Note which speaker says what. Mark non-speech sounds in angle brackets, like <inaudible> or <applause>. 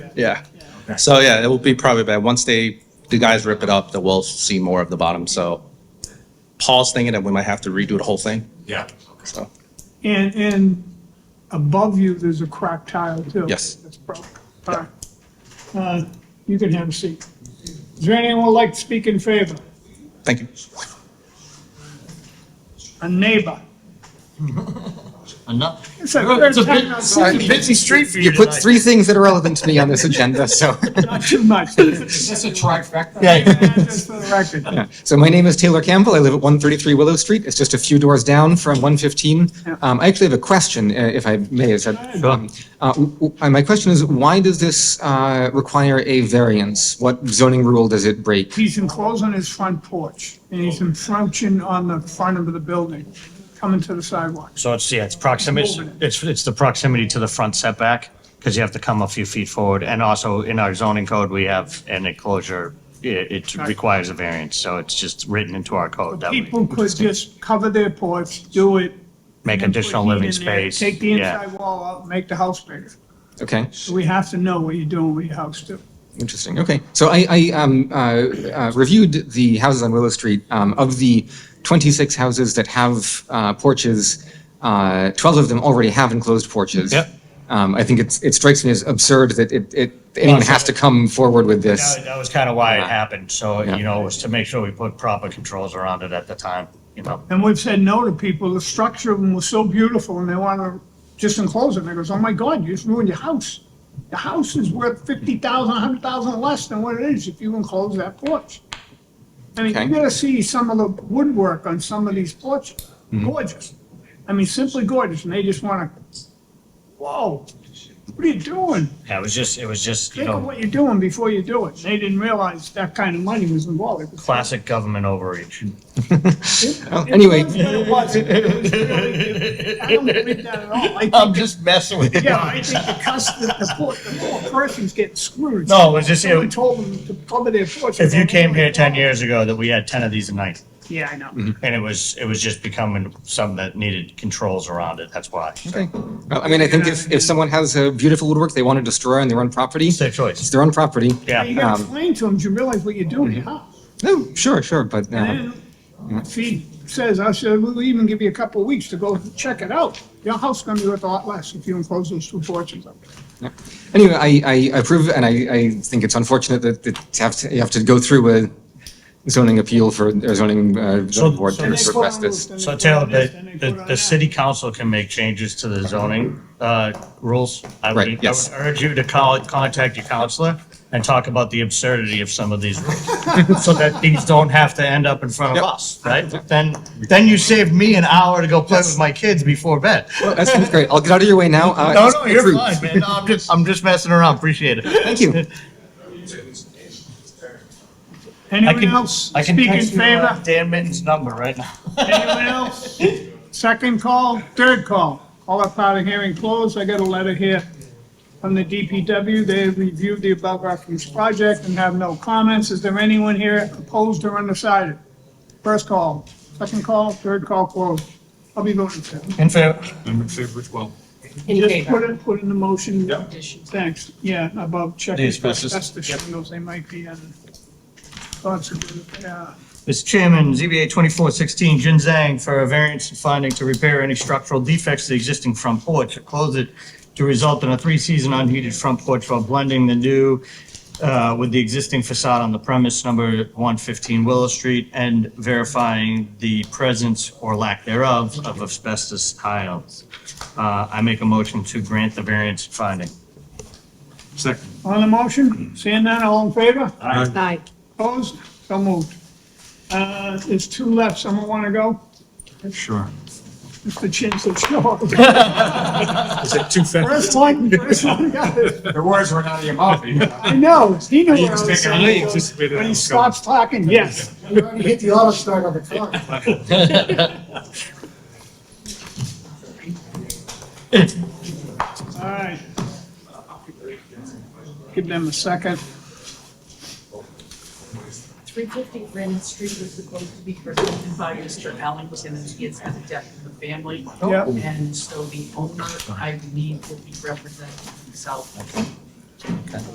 Speaker 1: yeah.
Speaker 2: Okay.
Speaker 1: So yeah, it will be probably bad. Once they, the guys rip it up, then we'll see more of the bottom. So Paul's thinking that we might have to redo the whole thing.
Speaker 2: Yeah.
Speaker 1: So
Speaker 3: And, and above you, there's a cracked tile too.
Speaker 1: Yes.
Speaker 3: That's broke. All right. Uh, You can have a seat. Is there anyone who would like to speak in favor?
Speaker 1: thank you.
Speaker 3: A neighbor?
Speaker 2: Enough.
Speaker 3: It's a
Speaker 2: It's a
Speaker 3: third
Speaker 2: bit-
Speaker 3: time I've
Speaker 2: sorry.
Speaker 3: seen
Speaker 2: Busy street for you
Speaker 4: You put
Speaker 2: tonight.
Speaker 4: three things that are relevant to me on this
Speaker 2: <laughs>
Speaker 4: agenda, so.
Speaker 3: it. Not too
Speaker 1: <laughs>
Speaker 3: much. Just
Speaker 2: That's a trifecta.
Speaker 3: for the record.
Speaker 4: So my name is Taylor Campbell. I live at 133 Willow Street. It's just a few doors down from 115.
Speaker 3: Yeah.
Speaker 4: Um, I actually have a question, uh, if I may. Is that,
Speaker 3: ahead.
Speaker 4: um, uh, w- w- uh, my question is, why does this uh, require a variance? What zoning rule does it break?
Speaker 3: He's enclosed on his front porch and he's encroaching on the front of the building, coming to the sidewalk.
Speaker 5: So it's, yeah, it's proximity, it's, it's the proximity to the front setback, because you have to come a few feet forward, and also in our zoning code, we have an enclosure, it, it requires a variance, so it's just written into our code that we
Speaker 3: People could just cover their porch, do it.
Speaker 5: make additional
Speaker 3: put heat
Speaker 5: living
Speaker 3: in there,
Speaker 5: space.
Speaker 3: Take the
Speaker 5: Yeah.
Speaker 3: inside wall out, make the house bigger.
Speaker 4: Okay,
Speaker 3: So we have to know what you're doing with your house too.
Speaker 4: interesting. Okay, so I, I um, uh, uh, reviewed the houses on Willow Street. Um, Of the 26 houses that have uh, porches, uh, 12 of them already have enclosed porches.
Speaker 5: Yep.
Speaker 4: Um, I think it's, it strikes me as absurd that it, it, anyone has to come forward with this.
Speaker 5: That that was kind of why it happened, so,
Speaker 4: Yeah.
Speaker 5: you know, it was to make sure we put proper controls around it at the time, you know.
Speaker 3: And we've said no to people, the structure of them was so beautiful and they want to just enclose it. And they goes, oh my God, you just ruined your house. The house is worth fifty thousand, a hundred thousand less than what it is if you enclose that porch. I mean,
Speaker 4: Okay.
Speaker 3: you gotta see some of the woodwork on some of these porches, gorgeous. I mean, simply gorgeous, and they just wanna, whoa, what are you doing?
Speaker 5: Yeah, it was just, it was just, you
Speaker 3: Think of
Speaker 5: know,
Speaker 3: what you're doing before you do it. They didn't realize that kind of money was involved. It was-
Speaker 5: classic government overreach.
Speaker 4: Well, anyway,
Speaker 3: It was, but it was really- I don't believe that at all. I
Speaker 2: I'm
Speaker 3: think,
Speaker 2: just messing with you.
Speaker 3: yeah,
Speaker 5: <laughs>
Speaker 3: I think the customer, the poor, the poor person's getting screwed.
Speaker 5: No, it was just,
Speaker 3: Someone
Speaker 5: if
Speaker 3: told them to cover their porch.
Speaker 5: you came here ten years Mm-hmm. ago, that we had ten of these a night.
Speaker 3: Yeah, I know.
Speaker 5: And it was, it was just becoming something that needed controls around it, that's why.
Speaker 4: okay. Well, I mean, I think if, if someone has a beautiful woodwork they want to destroy on their own property,
Speaker 5: It's their
Speaker 4: it's
Speaker 5: choice.
Speaker 4: their own property.
Speaker 3: But You gotta
Speaker 4: Um,
Speaker 3: explain to them, you realize what you're doing,
Speaker 5: mm-hmm.
Speaker 3: huh?
Speaker 4: No, Oh, sure, sure, but uh,
Speaker 3: And then if he says, I said, we'll even give you a couple of weeks to go check it out. Your house is gonna be worth a lot less if you enclose those two porches up.
Speaker 4: anyway, I, I approve, and I, I think it's unfortunate that it have to, you have to go through a zoning appeal for, or zoning, uh, zoning board
Speaker 5: so
Speaker 4: to
Speaker 5: And they
Speaker 4: request this.
Speaker 5: So Taylor, the, the, the city council can make changes to the zoning, uh, rules. I would-
Speaker 4: Right,
Speaker 5: I
Speaker 4: yes.
Speaker 5: would urge you to call, contact your counselor and talk about the absurdity of some of these rules. So that these don't have to end up in front of us, right? Then, then you saved me an hour to go play with my kids before bed.
Speaker 4: That sounds great. I'll get out of your way now. Uh,
Speaker 5: <laughs> No,
Speaker 4: it's
Speaker 5: no, you're
Speaker 4: approved.
Speaker 5: fine, man. No, I'm just, I'm just messing around. Appreciate it.
Speaker 4: Thank you.
Speaker 3: Anyone else
Speaker 5: I can
Speaker 3: speak in
Speaker 5: text you, uh,
Speaker 3: favor?
Speaker 5: Dan Mitten's number right now.
Speaker 3: Anyone else? Second call, third call. All up out of hearing closed. I got a letter here from the DPW. They have reviewed the above referenced project and have no comments. Is there anyone here opposed or undecided? First call, second call, third call closed. I'll be voting for it.
Speaker 5: In favor?
Speaker 2: I'm in favor as well.
Speaker 6: In
Speaker 3: Just put
Speaker 6: favor.
Speaker 3: it, put in the motion.
Speaker 2: Yeah.
Speaker 3: Thanks. Yeah, above checking.
Speaker 2: These passes.
Speaker 3: That's the shingles. They might be in. Thoughts of, uh, yeah.
Speaker 5: Mr. Chairman, ZBA 2416, Jin Zhang, for a variance and finding to repair any structural defects to the existing front porch or close it to result in a three-season unheated front porch while blending the new uh, with the existing facade on the premise number 115 Willow Street and verifying the presence or lack thereof of asbestos tiles. Uh, I make a motion to grant the variance finding.
Speaker 2: Second.
Speaker 3: On the motion, seeing none, all in favor?
Speaker 6: Aye.
Speaker 3: Opposed? So moved. Uh, There's two left. Someone want to go?
Speaker 2: Sure.
Speaker 3: Mr. Chinsel, sure.
Speaker 2: Is it too fast?
Speaker 3: First one, first one got it.
Speaker 2: The words were out of your mouth. you know.
Speaker 3: I know, he knew where I
Speaker 2: was
Speaker 3: was
Speaker 2: thinking, I
Speaker 3: going.
Speaker 2: anticipated
Speaker 3: When
Speaker 2: I
Speaker 3: he
Speaker 2: was
Speaker 3: stops talking, yes.
Speaker 7: You already hit the auto start on the car.
Speaker 3: All right. Give them a second.
Speaker 6: 350 Granite Street was supposed to be presented by Mr. Allen, was going to be it's at the death of the family.
Speaker 3: Yep.
Speaker 6: And so the owner, I need, will be representing himself.